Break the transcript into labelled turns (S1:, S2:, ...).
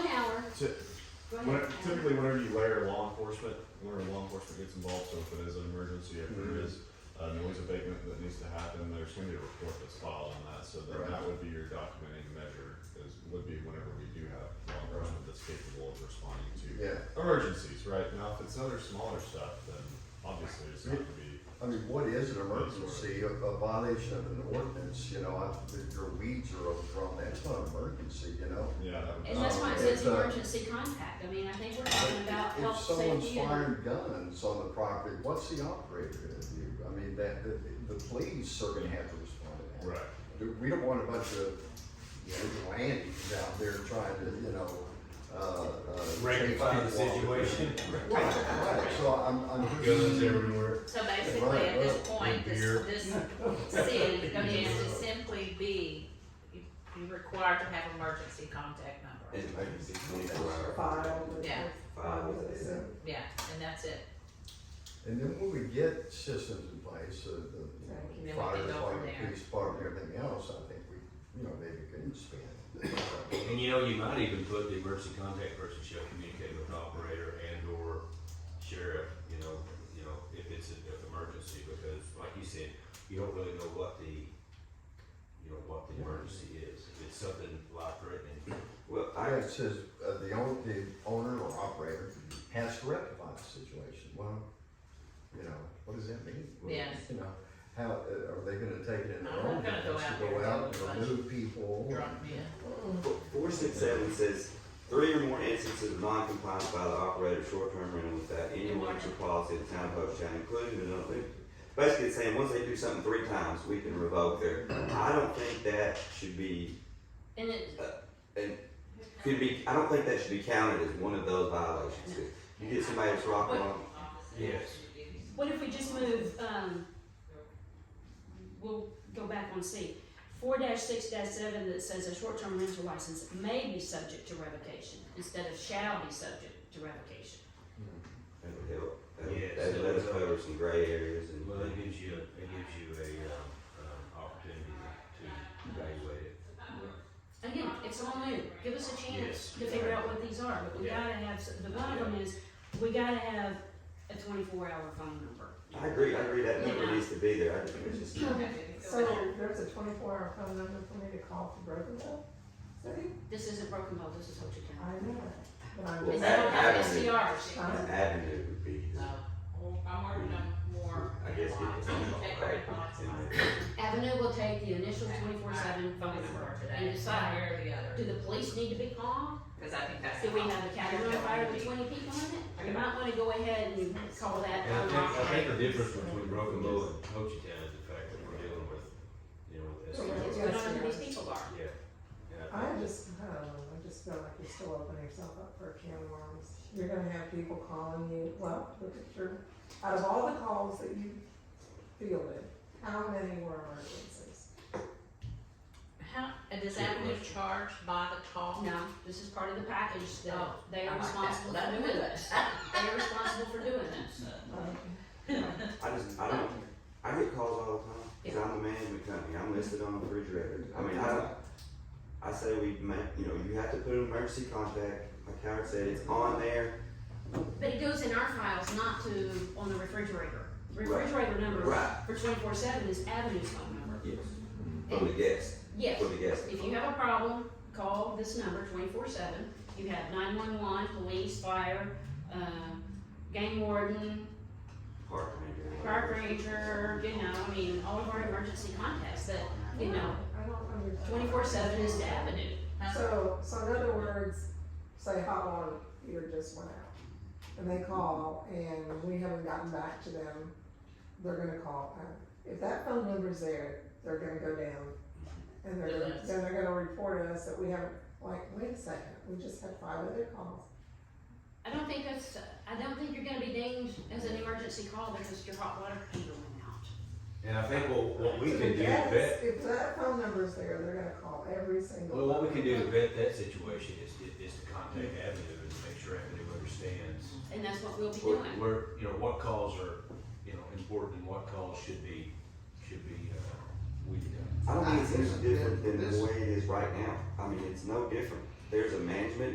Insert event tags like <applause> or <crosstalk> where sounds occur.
S1: Ti-
S2: Go ahead.
S1: when- Typically, whenever you layer law enforcement, whenever law enforcement gets involved, so if it is an emergency, if there
S3: Mhm.
S1: is a noise abatement that needs to happen, there's gonna be a report that's filed on that, so then
S3: Right.
S1: that would be your documenting measure, is, would be whenever we do have law enforcement that's capable of responding to
S3: Yeah,
S1: emergencies, right? Now, if it's other smaller stuff, then obviously it's not gonna be,
S3: I mean, what is an emergency, a a violation of an ordinance, you know, I, the- your weeds are overgrown, that's not an emergency, you know?
S1: yeah, that would.
S2: And that's why it says
S3: It's, uh,
S2: emergency contact, I mean, I think we're talking about
S3: If- If
S2: health,
S3: someone's
S2: safety and.
S3: firing guns on the property, what's the operator gonna do? I mean, that, the, the police are gonna have to respond to that.
S1: Right,
S3: Do- We don't want a bunch of vigilantes out there trying to, you know, uh, uh.
S4: rectify the
S3: change people off.
S4: situation.
S3: Right, right, so I'm, I'm.
S4: Guns everywhere.
S2: So basically, at this point, this, this city, I mean, to simply be, you- you're required to have emergency contact number.
S5: It might be twenty-four hour.
S6: File.
S2: Yeah.
S6: File with it.
S2: Yeah, and that's it.
S3: And then when we get systems in place, uh, the,
S2: Then we
S3: the
S2: can
S3: fire
S2: go from
S3: department,
S2: there.
S3: police department, everything else, I think we, you know, maybe couldn't spend.
S4: And you know, you might even put the emergency contact person shall communicate with operator and or sheriff, you know, you know, if it's an if emergency, because like you said, you don't really know what the, you know, what the emergency is. If it's something life threatening,
S5: Well,
S3: I,
S5: I,
S3: it says, uh, the owner, the owner or operator has to rectify the situation, well, you know, what does that mean? Well,
S2: Yeah.
S3: You know, how, uh, are they gonna take it in
S2: I'm
S3: their
S2: not
S3: own
S2: gonna
S3: hands
S2: go out
S3: to
S2: there
S3: go
S2: and
S3: out
S2: do a
S3: and
S2: bunch
S3: remove people?
S2: Drunk men.
S5: four- four six seven says, three or more instances of non-compliance by the operator of short-term rental without any warranty or policy of the town of Hope shall include but not limited. Basically, it's saying, once they do something three times, we can revoke their, I don't think that should be,
S2: And it,
S5: could be, I don't think that should be counted as one of those violations. 'Cause You get somebody that's rocking on,
S4: yes.
S7: What if we just move, um, we'll go back on C. Four six seven that says a short-term rental license may be subject to revocation instead of shall be subject to revocation.
S5: that would help. That would-
S4: Yes,
S5: That
S4: that
S5: would let us
S4: would help.
S5: cover some gray areas and.
S4: Well, it gives you, a- it gives you a, um, um, opportunity to evaluate it.
S7: Again, it's all new, give us a
S4: Yes.
S7: chance to figure out what these are, but we
S4: Yeah.
S7: gotta have, s- the bottom is, we gotta have a twenty-four hour phone number.
S5: I agree, I agree, that number
S2: Yeah.
S5: needs to be there, I just think it's just.
S6: So there's a twenty-four hour phone number for me to call for broken Bow? City?
S7: This isn't Broken Bow, this is Ho Chi
S6: I
S7: Town.
S6: know it, but I'm.
S5: Well,
S7: And they don't have
S5: Avenue.
S7: SDRs.
S5: An avenue would be,
S2: I'm working on more.
S5: I guess, it's
S7: Avenue will take the initial twenty-four seven phone number and decide,
S2: or the other.
S7: do the police need to be called?
S2: Cause I think that's.
S7: Do we have a category fire with twenty people in it? You might wanna go ahead and call that.
S4: And I think, I think the difference between Broken Bow and Ho Chi Town is the fact that we're dealing with, you know, with
S6: Yeah.
S4: SDRs.
S7: It's what all these people are.
S4: Yeah. Yeah, I
S6: I
S4: think-
S6: just, I don't know, I just feel like you're still opening yourself up for a can of worms. You're gonna have people calling you, well, look at your, out of all the calls that you fielded, how many were emergencies?
S2: How, and does Avenue charge by the call?
S7: No, this is part of the package that
S2: Oh,
S7: they are
S2: I like that.
S7: responsible
S2: Let
S7: for
S2: them
S7: doing
S2: do
S7: this. <laughs> They are responsible for doing this.
S6: Um,
S5: I just, I don't, I get calls all the time, cause I'm a management company, I'm listed on the refrigerator, I mean, I don't, I say we ma- you know, you have to put an emergency contact, like Howard said, it's on there,
S7: But it goes in our files, not to, on the refrigerator. Refrigerator number
S5: right,
S7: for twenty-four seven is Avenue's phone number.
S5: yes, for the guest,
S7: Yes,
S5: for the guest.
S7: Mm-hmm. if you have a problem, call this number twenty-four seven. You have nine-one-one, police, fire, um, game warden,
S5: Park ranger.
S7: park ranger, you know, I mean, all of our emergency contacts that, you know,
S6: I don't understand.
S7: twenty-four seven is the avenue.
S6: So, so in other words, say hot water heater just went out, and they call, and we haven't gotten back to them, they're gonna call. Uh, If that phone number's there, they're gonna go down, and they're, gonna- then they're gonna report us that we haven't, like, wait a second, we just had five other calls.
S7: I don't think that's, I don't think you're gonna be deemed as an emergency call because your hot water heater went out.
S4: And I think what, what we
S6: So
S4: can
S6: if
S4: do to
S6: that's-
S4: vet
S6: If that phone number's there, they're gonna call every single.
S4: Well, what we can do to vet that situation is to, is to contact Avenue and make sure Avenue understands
S7: And that's what we'll be
S4: where,
S7: doing.
S4: where, you know, what calls are, you know, important and what calls should be, should be, uh, weeded out.
S5: I don't think it's any different than the way it is right now, I mean, it's no different, there's a management